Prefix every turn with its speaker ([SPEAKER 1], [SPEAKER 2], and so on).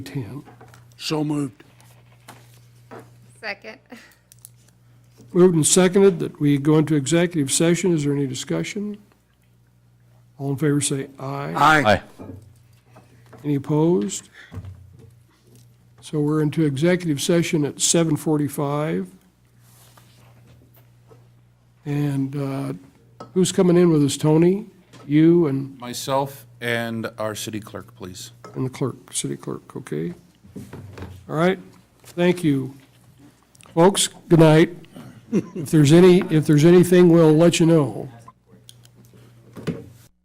[SPEAKER 1] 10. So moved.
[SPEAKER 2] Second.
[SPEAKER 1] Moved and seconded that we go into executive session. Is there any discussion? All in favor say aye.
[SPEAKER 3] Aye.
[SPEAKER 1] Any opposed? So we're into executive session at 7:45. And uh, who's coming in with us? Tony, you, and
[SPEAKER 3] Myself and our city clerk, please.
[SPEAKER 1] and the clerk, city clerk, okay? All right, thank you. Folks, good night. If there's any, if there's anything, we'll let you know.